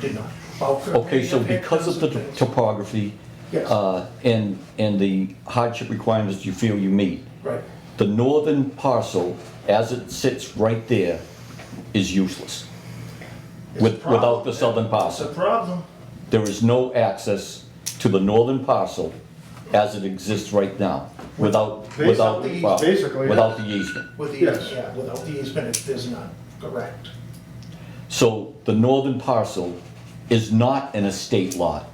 Did not. Okay. Okay, so because of the topography Yes. uh, and, and the hardship requirements you feel you meet, Right, the northern parcel, as it sits right there, is useless. It's a With, problem. without the southern it's a parcel. problem. There is no access to the northern parcel as it exists right now, without, Basically, without, well, basically, without the easement. With the, Yes. yeah, without the easement, it is not correct. So the northern parcel is not an estate lot.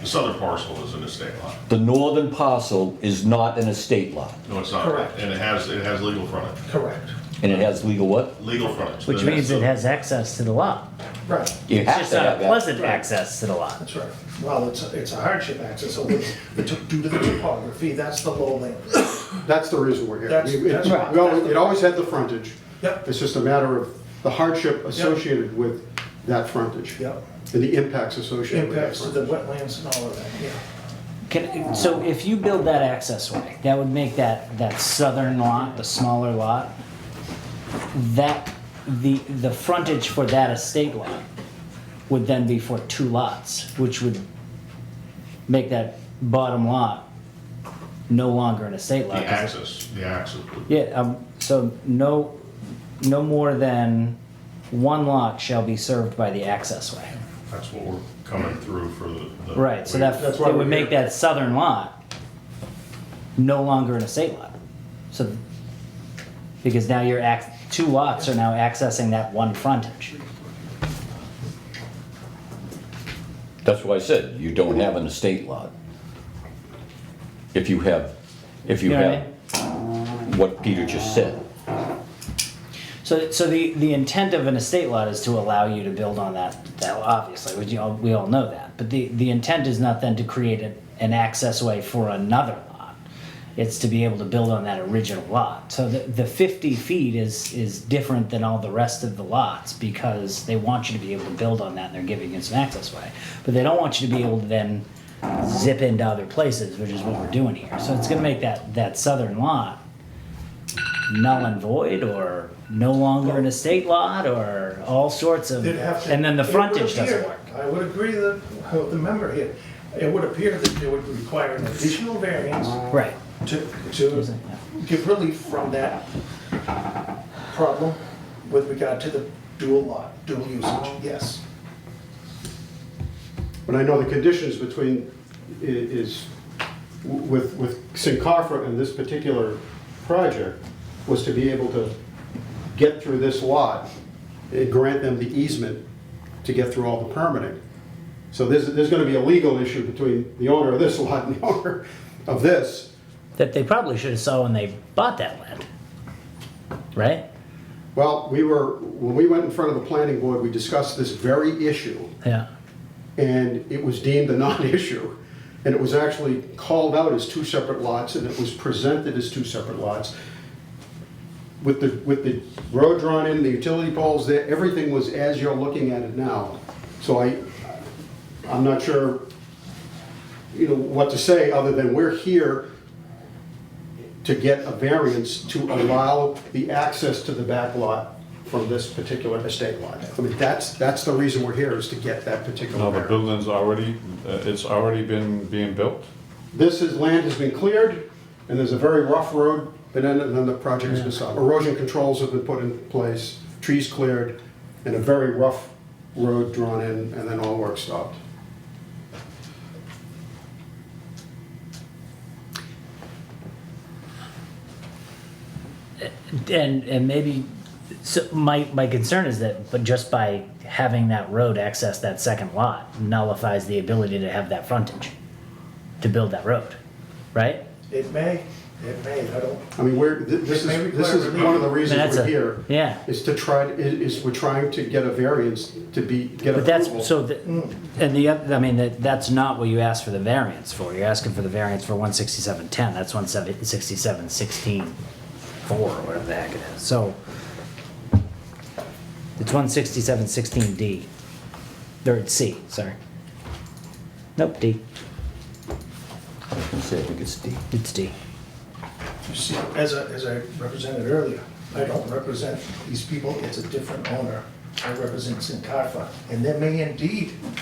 The southern parcel is an estate lot. The northern parcel is not an estate lot, No, it's not. Correct. And it has, it has legal frontage, Correct. and it has legal what? legal frontage. Which Then means it that's has access to the lot. Right, You It's have just to not have a that. pleasant access to the lot. that's right. Well, it's, it's a hardship access, so it's- it took- due to the topography, that's the low lane. That's the reason we're here. That's- We- that's it- right. we always- It always had the frontage. Yep. It's just a matter of the hardship associated with that frontage. Yep. And the impacts associated with that Impacts to the frontage. wetlands and all of that, yeah. Can, so if you build that access way, that would make that, that southern lot, the smaller lot, that, the, the frontage for that estate lot would then be for two lots, which would make that bottom lot no longer an estate lot. The 'cause it- axis, the axis. would- Yeah, um, so no, no more than one lot shall be served by the access way. That's what we're coming through for the. the- Right, so that, That's that why we're would make here. that southern lot no longer an estate lot. So, because now you're act, two lots are now accessing that one frontage. That's why I said, you don't have an estate lot. If you have, if you You know what I have what Peter just said. So, so the, the intent of an estate lot is to allow you to build on that, that obviously, which you all, we all know that. But the, the intent is not then to create an, an access way for another lot. It's to be able to build on that original lot. So the, the fifty feet is, is different than all the rest of the lots because they want you to be able to build on that and they're giving you some access way. But they don't want you to be able to then zip into other places, which is what we're doing here. So it's gonna make that, that southern lot null and void or no longer an estate lot or all sorts of, They'd have to- and then the it would frontage doesn't appear- work. I would agree that, with the member here, it would appear that they would require an additional variance Right. to, to give relief from that problem with regard to the dual lot, dual usage, yes. But I know the conditions between, i- is, w- with, with Sincarfa and this particular project, was to be able to get through this lot and grant them the easement to get through all the permitting. So there's, there's gonna be a legal issue between the owner of this lot and the owner of this. That they probably should have saw when they bought that land. Right? Well, we were, when we went in front of the planning board, we discussed this very issue, Yeah. and it was deemed a non-issue. And it was actually called out as two separate lots, and it was presented as two separate lots. With the, with the road drawn in, the utility poles there, everything was as you're looking at it now. So I, I'm not sure, you know, what to say, other than we're here to get a variance to allow the access to the back lot from this particular estate lot. I mean, that's, that's the reason we're here, is to get that particular No, the variance. building's already, uh, it's already been being built. This is, land has been cleared, and there's a very rough road, and then, and then the project's been stopped. Erosion controls have been put in place, trees cleared, and a very rough road drawn in, and then all work stopped. And, and maybe, so my, my concern is that, but just by having that road access that second lot nullifies the ability to have that frontage, to build that road, right? It may, it may, I don't, I mean, we're, th- this It may is, this require is relief. one of the I mean, reasons that's we're a- here. yeah. Is to try, i- is we're trying to get a variance to be, get But that's, approval. so, the- and the, oth- I mean, that, that's not what you asked for the variance for. You're asking for the variance for one sixty-seven ten, that's one seven, sixty-seven sixteen four, or whatever the heck it is, so. It's one sixty-seven sixteen D, or it's C, sorry. Nope, D, Say, I think it's D. it's D. you see, as I, as I represented earlier, I don't represent these people, it's a different owner. I represent Sincarfa, and there may indeed